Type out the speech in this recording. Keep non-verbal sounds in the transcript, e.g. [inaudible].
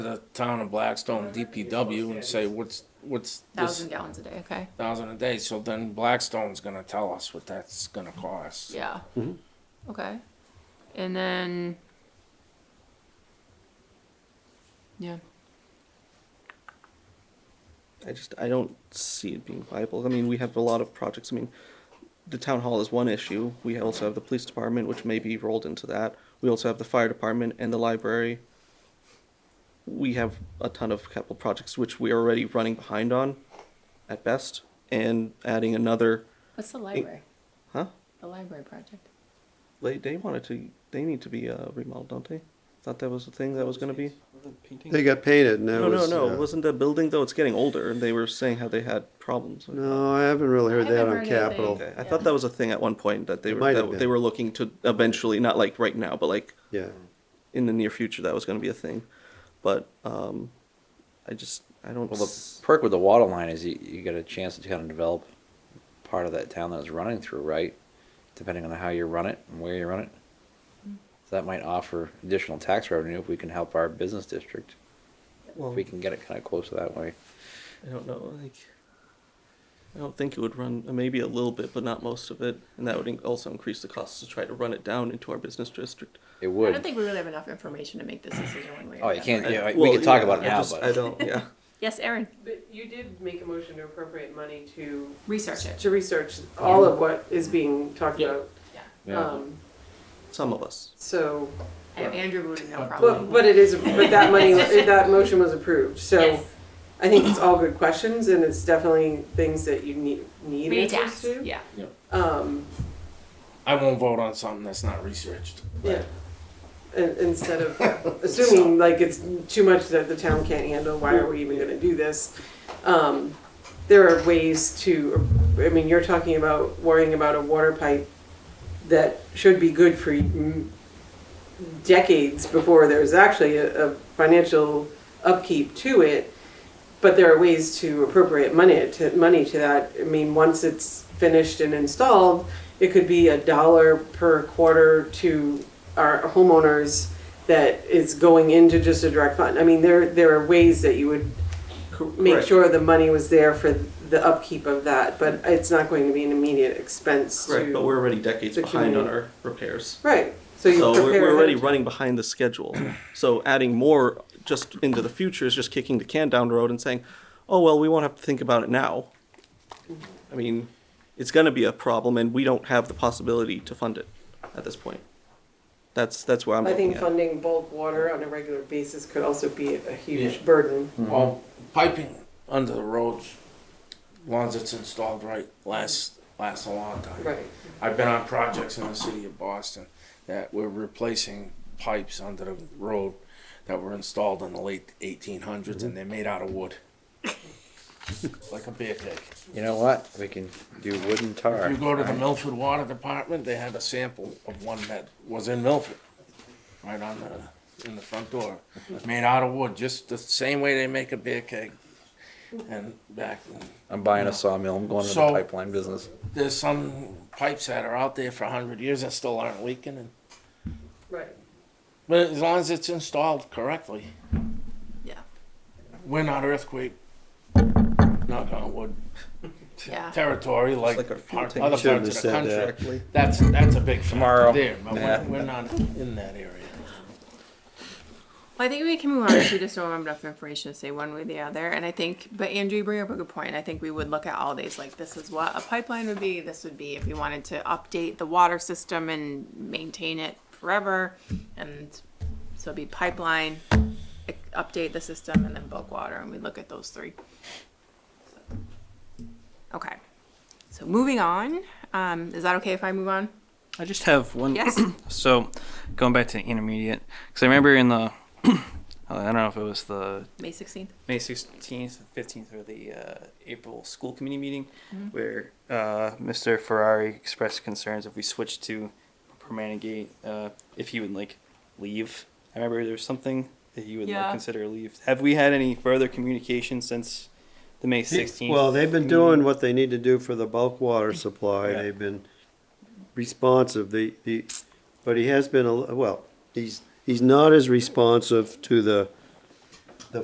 the town of Blackstone DPW and say, what's, what's this Thousand gallons a day, okay, thousand a day? So then Blackstone's gonna tell us what that's gonna cost. yeah. Mm-hmm. Okay, and then. Yeah, I just I don't see it being viable. I mean, we have a lot of projects. I mean, the town hall is one issue. We also have the police department, which may be rolled into that. We also have the fire department and the library. We have a ton of capital projects which we are already running behind on, at best, and adding another. what's the library, Huh? the library project? They they wanted to. They need to be uh, remodeled, don't they? Thought that was the thing that was going to be. They got painted and that No, no, was. no. uh, It wasn't a building though. It's getting older, and they were saying how they had problems. with that. No, I haven't really heard I that haven't on heard Capitol. anything. Okay, I thought that was a thing at one point that they It were might have that been. they were looking to eventually, not like right now, but like Yeah. in the near future, that was going to be a thing. But um, I just I don't. Well, the s- perk with the water line is you, you get a chance to kind of develop part of that town that it's running through, right? Depending on how you run it and where you run it. So that might offer additional tax revenue if we can help our business district. well, If we can get it kind of close that way. I don't know. Like I don't think it would run uh, maybe a little bit, but not most of it, and that would in- also increase the costs to try to run it down into our business district. It I don't would. think we really have enough information to make this decision one way or Oh, the you can't, other. yeah, we Well, can talk yeah, about it I now, just- I but don't. Yeah. Yes, Erin, But you did make a motion to appropriate money to, research it, to research all of what is being talked Yeah. about. Yeah. Yeah. Um, Some of us. So, and Andrew would know probably. but, but it is, uh, but [laughs] that money, that motion was approved, so Yes. I think it's all good questions, and it's definitely things that you need, need We need to answers ask, to. yeah, Um, I won't vote on something that's not researched. yeah. In- Instead of assuming like it's too much that the town can't handle, why are we even gonna do this? Um, There are ways to, I mean, you're talking about worrying about a water pipe that should be good for mm, decades before there's actually a, a financial upkeep to it. But there are ways to appropriate money to, money to that. I mean, once it's finished and installed, it could be a dollar per quarter to our homeowners that is going into just a direct fund. I mean, there, there are ways that you would make Correct. sure the money was there for the upkeep of that, but it's not going to be an immediate expense to. Right, but we're already decades the behind on community. our repairs. Right, so you so we're, prepare. we're ahead already of time. running behind the schedule. [clears throat] So adding more just into the future is just kicking the can down the road and saying, "Oh well, we won't have to think about it now." I mean, it's going to be a problem, and we don't have the possibility to fund it at this point. That's that's where I'm I looking think at. funding bulk water on a regular basis could also be a Yeah. huge burden. Hmm. Well, piping under the roads, once it's installed right, lasts, lasts a long time. Right. I've been on projects in the city of Boston that were replacing pipes under the road that were installed in the late 1800s and they're made out of wood. like a beer keg. you know what? We can do wooden tar. You go to the Milford Water Department, they had a sample of one that was in Milford, right on the, in the front door. Made out of wood, just the same way they make a beer keg. And back, I'm buying a sawmill. I'm going into the So- pipeline business. there's some pipes that are out there for a hundred years that still aren't leaking and Right. But as long as it's installed correctly, yeah, we're not earthquake, knock on wood, yeah. territory like, like our fuel part- tank. other Shouldn't parts of the have said that. country. That's, that's a big factor Tomorrow. there, but we're, Yeah. we're not in that area. Well, I think we can move on if we just don't have enough information to say one way or the other. And I think, but Andrew, you bring up a good point. I think we would look at all these like this is what a pipeline would be. This would be if we wanted to update the water system and maintain it forever. And so it'd be pipeline, i- update the system, and then bulk water. And we look at those three. Okay. So moving on. Um, is that okay if I move on? I just have one. Yes. [clears throat] So, going back to intermediate, because I remember in the, [clears throat] I don't know if it was the May 16th. May 16th, 15th, or the uh, April school committee meeting, where uh, Mr. Ferrari expressed concerns if we switched to Permanagate, uh, if he would like leave. I remember there was something that he would Yeah. like consider leave. Have we had any further communication since the May 16th? Well, they've been doing what they need to do for the bulk water supply. Yeah. They've been responsive. The, the, but he has been, a l- well, he's, he's not as responsive to the